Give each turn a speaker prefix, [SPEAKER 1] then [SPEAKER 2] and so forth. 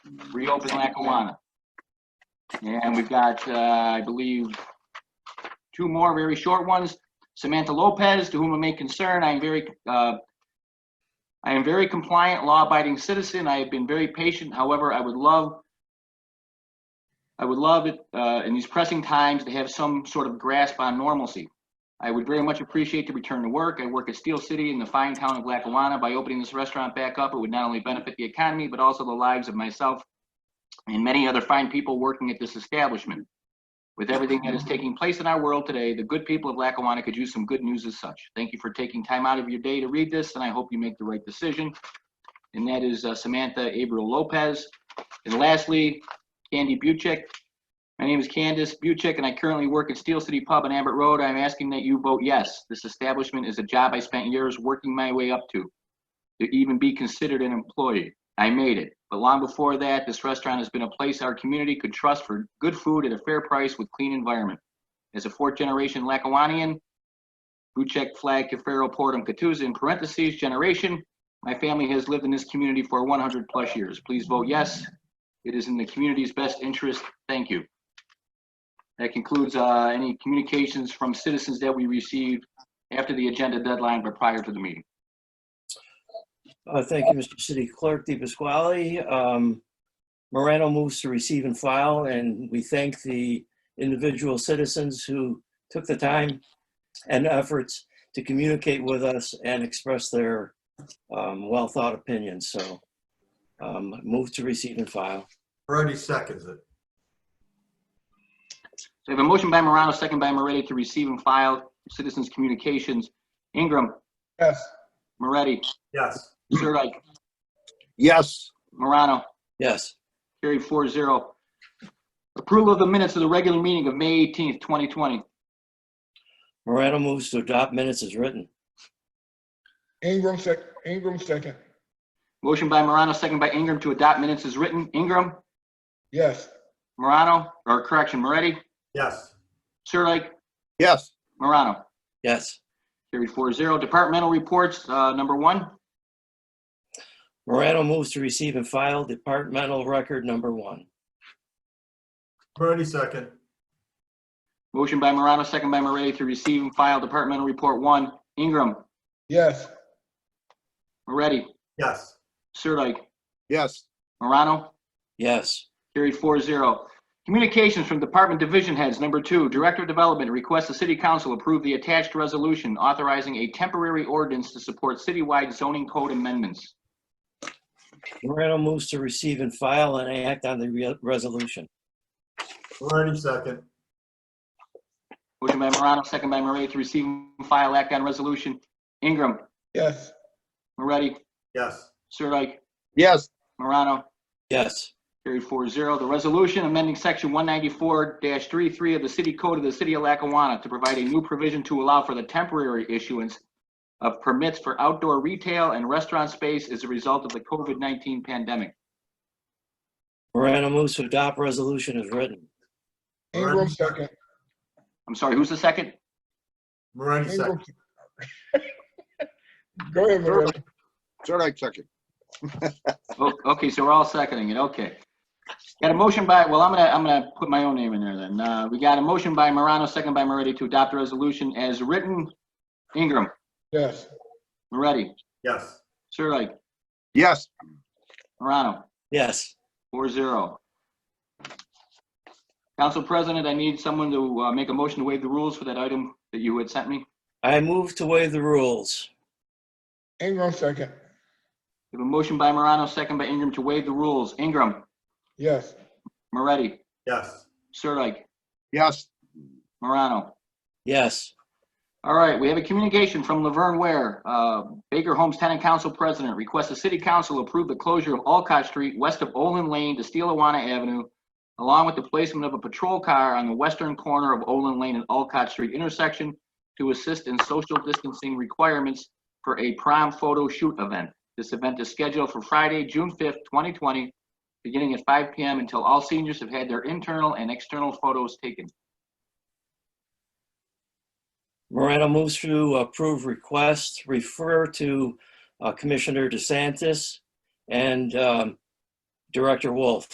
[SPEAKER 1] reopen Lackawanna. And we've got, uh, I believe, two more very short ones. Samantha Lopez, to whom it may concern, I am very, uh, I am very compliant, law-abiding citizen. I have been very patient. However, I would love, I would love it, uh, in these pressing times to have some sort of grasp on normalcy. I would very much appreciate the return to work. I work at Steel City in the fine town of Lackawanna. By opening this restaurant back up, it would not only benefit the economy, but also the lives of myself and many other fine people working at this establishment. With everything that is taking place in our world today, the good people of Lackawanna could use some good news as such. Thank you for taking time out of your day to read this, and I hope you make the right decision. And that is uh, Samantha Abreu Lopez. And lastly, Candy Buchek. My name is Candace Buchek, and I currently work at Steel City Pub on Abbott Road. I'm asking that you vote yes. This establishment is a job I spent years working my way up to, to even be considered an employee. I made it. But long before that, this restaurant has been a place our community could trust for good food at a fair price with clean environment. As a fourth-generation Lackawannian, Buchek Flag Cafaro Portum Catuzza in parentheses generation, my family has lived in this community for 100-plus years. Please vote yes. It is in the community's best interest. Thank you. That concludes uh, any communications from citizens that we received after the agenda deadline but prior to the meeting.
[SPEAKER 2] Uh, Thank you, Mr. City Clerk DePasquale. Um, Morano moves to receive and file, and we thank the individual citizens who took the time and efforts to communicate with us and express their um, well-thought opinions. So um, move to receive and file.
[SPEAKER 3] Moretti seconds it.
[SPEAKER 1] So we have a motion by Morano, second by Moretti to receive and file citizens' communications. Ingram,
[SPEAKER 4] Yes.
[SPEAKER 1] Moretti,
[SPEAKER 3] Yes.
[SPEAKER 1] Sirdike,
[SPEAKER 4] Yes.
[SPEAKER 1] Morano,
[SPEAKER 2] Yes,
[SPEAKER 1] carried four zero. Approval of the minutes of the regular meeting of May 18th, 2020.
[SPEAKER 2] Morano moves to adopt minutes as written.
[SPEAKER 4] Ingram sec, Ingram second.
[SPEAKER 1] Motion by Morano, second by Ingram to adopt minutes as written. Ingram,
[SPEAKER 4] Yes.
[SPEAKER 1] Morano, or correction, Moretti,
[SPEAKER 3] Yes.
[SPEAKER 1] Sirdike,
[SPEAKER 4] Yes.
[SPEAKER 1] Morano.
[SPEAKER 2] Yes,
[SPEAKER 1] Carried four zero. Departmental reports, uh, number one.
[SPEAKER 2] Morano moves to receive and file departmental record number one.
[SPEAKER 3] Moretti second.
[SPEAKER 1] Motion by Morano, second by Moretti to receive and file Departmental Report One. Ingram,
[SPEAKER 4] Yes.
[SPEAKER 1] Moretti,
[SPEAKER 3] Yes.
[SPEAKER 1] Sirdike,
[SPEAKER 4] Yes.
[SPEAKER 1] Morano.
[SPEAKER 2] Yes,
[SPEAKER 1] Carried four zero. Communications from Department Division Heads. Number two, Director of Development requests the City Council approve the attached resolution authorizing a temporary ordinance to support citywide zoning code amendments.
[SPEAKER 2] Morano moves to receive and file and act on the re- resolution.
[SPEAKER 3] Moretti second.
[SPEAKER 1] Motion by Morano, second by Moretti to receive and file Act on Resolution. Ingram,
[SPEAKER 4] Yes.
[SPEAKER 1] Moretti,
[SPEAKER 3] Yes.
[SPEAKER 1] Sirdike,
[SPEAKER 4] Yes.
[SPEAKER 1] Morano.
[SPEAKER 2] Yes,
[SPEAKER 1] Carried four zero. The resolution amending section one ninety-four 33 of the city code of the city of Lackawanna to provide a new provision to allow for the temporary issuance of permits for outdoor retail and restaurant space as a result of the COVID nineteen pandemic.
[SPEAKER 2] Morano moves to adopt resolution as written.
[SPEAKER 4] Ingram second.
[SPEAKER 1] I'm sorry, who's the second?
[SPEAKER 3] Moretti
[SPEAKER 4] Ingram.
[SPEAKER 3] second.
[SPEAKER 4] Go ahead, Moretti.
[SPEAKER 5] Sirdike second.
[SPEAKER 1] O- Oh, Okay, so we're all seconding it, okay. Got a motion by, well, I'm gonna, I'm gonna put my own name in there then. Uh, we got a motion by Morano, second by Moretti to adopt the resolution as written. Ingram,
[SPEAKER 4] Yes.
[SPEAKER 1] Moretti,
[SPEAKER 3] Yes.
[SPEAKER 1] Sirdike,
[SPEAKER 5] Yes.
[SPEAKER 1] Morano.
[SPEAKER 2] Yes,
[SPEAKER 1] Four zero. Council President, I need someone to uh, make a motion to waive the rules for that item that you had sent me.
[SPEAKER 2] I move to waive the rules.
[SPEAKER 4] Ingram second.
[SPEAKER 1] We have a motion by Morano, second by Ingram to waive the rules. Ingram,
[SPEAKER 4] Yes.
[SPEAKER 1] Moretti,
[SPEAKER 3] Yes.
[SPEAKER 1] Sirdike,
[SPEAKER 5] Yes.
[SPEAKER 1] Morano.
[SPEAKER 2] Yes,
[SPEAKER 1] All right, we have a communication from Laverne Ware. Uh, Baker Homes Tenant Council President requests the City Council approve the closure of Alcott Street west of Olin Lane to Steelawana Avenue, along with the placement of a patrol car on the western corner of Olin Lane and Alcott Street intersection to assist in social distancing requirements for a prom photo shoot event. This event is scheduled for Friday, June 5th, 2020, beginning at 5 PM until all seniors have had their internal and external photos taken.
[SPEAKER 2] Morano moves to approve request, refer to uh, Commissioner DeSantis and um, Director Wolf.